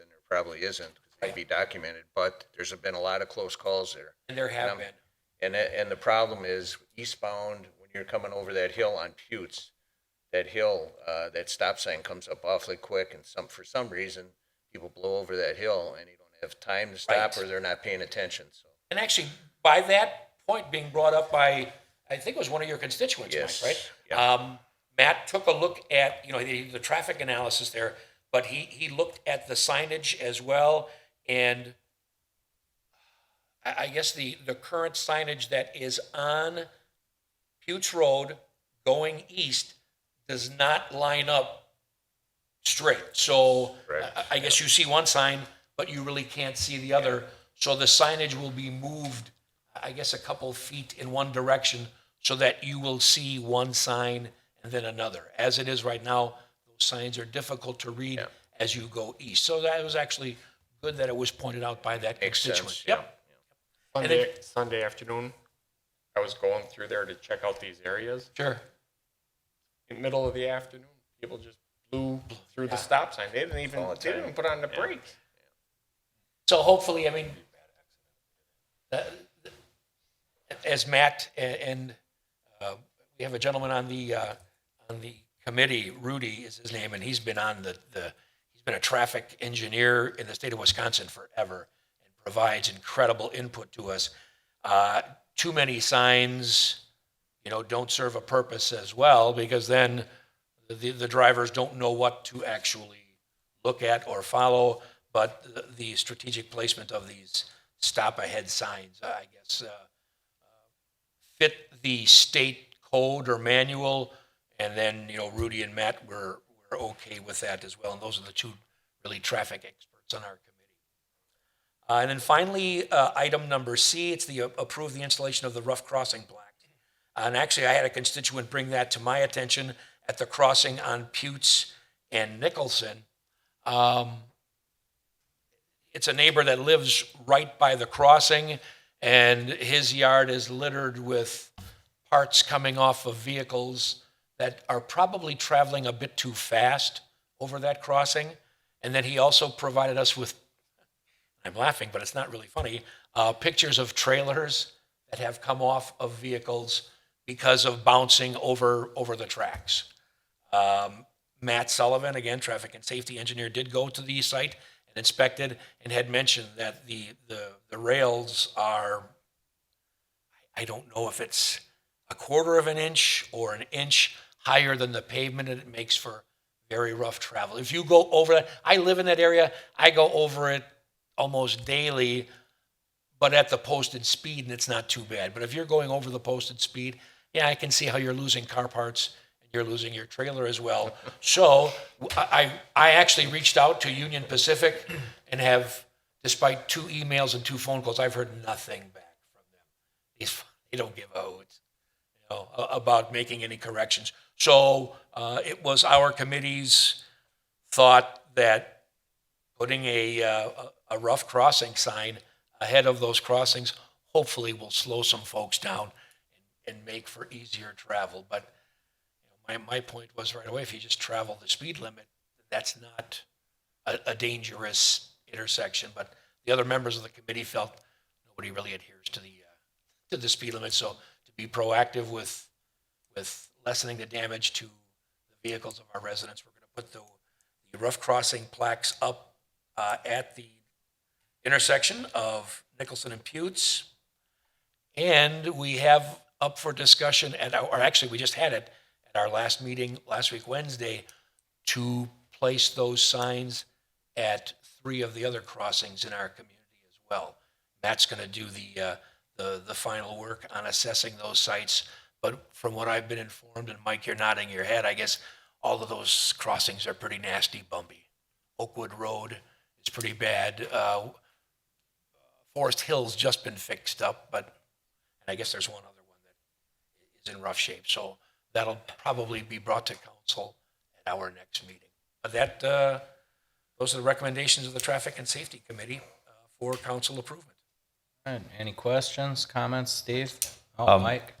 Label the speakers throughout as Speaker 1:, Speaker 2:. Speaker 1: and there probably isn't, 'cause they'd be documented, but there's been a lot of close calls there.
Speaker 2: And there
Speaker 1: Um,
Speaker 2: have been.
Speaker 1: And, it- and the problem is eastbound, when you're coming over that hill on Putes, that hill, uh, that stop sign comes up awfully quick and some, for some reason, people blow over that hill and you don't have time to stop
Speaker 2: Right.
Speaker 1: or they're not paying attention, so.
Speaker 2: And actually, by that point being brought up by, I think it was one of your constituents,
Speaker 1: Yes,
Speaker 2: Mike, right?
Speaker 1: yeah.
Speaker 2: Um, Matt took a look at, you know, the, the traffic analysis there, but he, he looked at the signage as well. And I, I guess the, the current signage that is on Putes Road going east does not line up straight. So
Speaker 1: Correct.
Speaker 2: I, I guess you see one sign, but you really can't see the other. So the signage will be moved, I guess, a couple feet in one direction so that you will see one sign and then another. As it is right now, those signs are difficult to read as you go east. So that was actually good that it was pointed out by that
Speaker 1: Makes
Speaker 2: constituent.
Speaker 1: sense,
Speaker 2: Yep.
Speaker 1: yeah.
Speaker 2: And
Speaker 3: Sunday, Sunday afternoon, I was going through there to check out these areas.
Speaker 2: Sure.
Speaker 3: In the middle of the afternoon, people just blew through the stop sign. They didn't even,
Speaker 1: All the
Speaker 3: they didn't
Speaker 1: time.
Speaker 3: even put on the brakes.
Speaker 2: So hopefully, I mean, uh, as Matt a- and uh, we have a gentleman on the, uh, on the committee, Rudy is his name, and he's been on the, the, he's been a traffic engineer in the state of Wisconsin forever and provides incredible input to us. Uh, Too many signs, you know, don't serve a purpose as well, because then the, the drivers don't know what to actually look at or follow, but the- the strategic placement of these stop-ahead signs, I guess, uh, fit the state code or manual, and then, you know, Rudy and Matt were, were okay with that as well, and those are the two really traffic experts on our committee. Uh, And then finally, uh, item number C, it's the uh, approve the installation of the rough crossing plaque. And actually, I had a constituent bring that to my attention at the crossing on Putes and Nicholson. Um, it's a neighbor that lives right by the crossing, and his yard is littered with parts coming off of vehicles that are probably traveling a bit too fast over that crossing. And then he also provided us with, I'm laughing, but it's not really funny, uh, pictures of trailers that have come off of vehicles because of bouncing over over the tracks. Um, Matt Sullivan, again, traffic and safety engineer, did go to the site and inspected and had mentioned that the, the, the rails are, I don't know if it's a quarter of an inch or an inch higher than the pavement and it makes for very rough travel. If you go over that, I live in that area, I go over it almost daily, but at the posted speed and it's not too bad. But if you're going over the posted speed, yeah, I can see how you're losing car parts and you're losing your trailer as well. So I, I I actually reached out to Union Pacific and have, despite two emails and two phone calls, I've heard nothing back from them. These- They don't give a hoot you know, a- about making any corrections. So uh, it was our committee's thought that putting a, uh, a a rough crossing sign ahead of those crossings hopefully will slow some folks down and make for easier travel. But you know, my, my point was right away, if you just travel the speed limit, that's not a, a dangerous intersection. But the other members of the committee felt nobody really adheres to the, uh, to the speed limit. So to be proactive with, with lessening the damage to the vehicles of our residents, we're going to put the, the rough crossing plaques up, uh, at the intersection of Nicholson and Putes. And we have up for discussion at our, or actually, we just had it at our last meeting last week, Wednesday, to place those signs at three of the other crossings in our community as well. Matt's going to do the, uh, the, the final work on assessing those sites. But from what I've been informed, and Mike, you're nodding your head, I guess all of those crossings are pretty nasty, bumpy. Oakwood Road is pretty bad. Uh, Forest Hill's just been fixed up, but and I guess there's one other one that is in rough shape. So that'll probably be brought to council at our next meeting. But that, uh, those are the recommendations of the Traffic and Safety Committee uh, for council improvement.
Speaker 4: All right, any questions, comments, Steve? Oh,
Speaker 5: Um,
Speaker 4: Mike?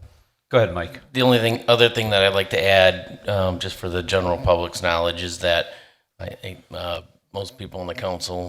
Speaker 5: Go ahead, Mike.
Speaker 6: The only thing, other thing that I'd like to add, um, just for the general public's knowledge, is that I think uh, most people on the council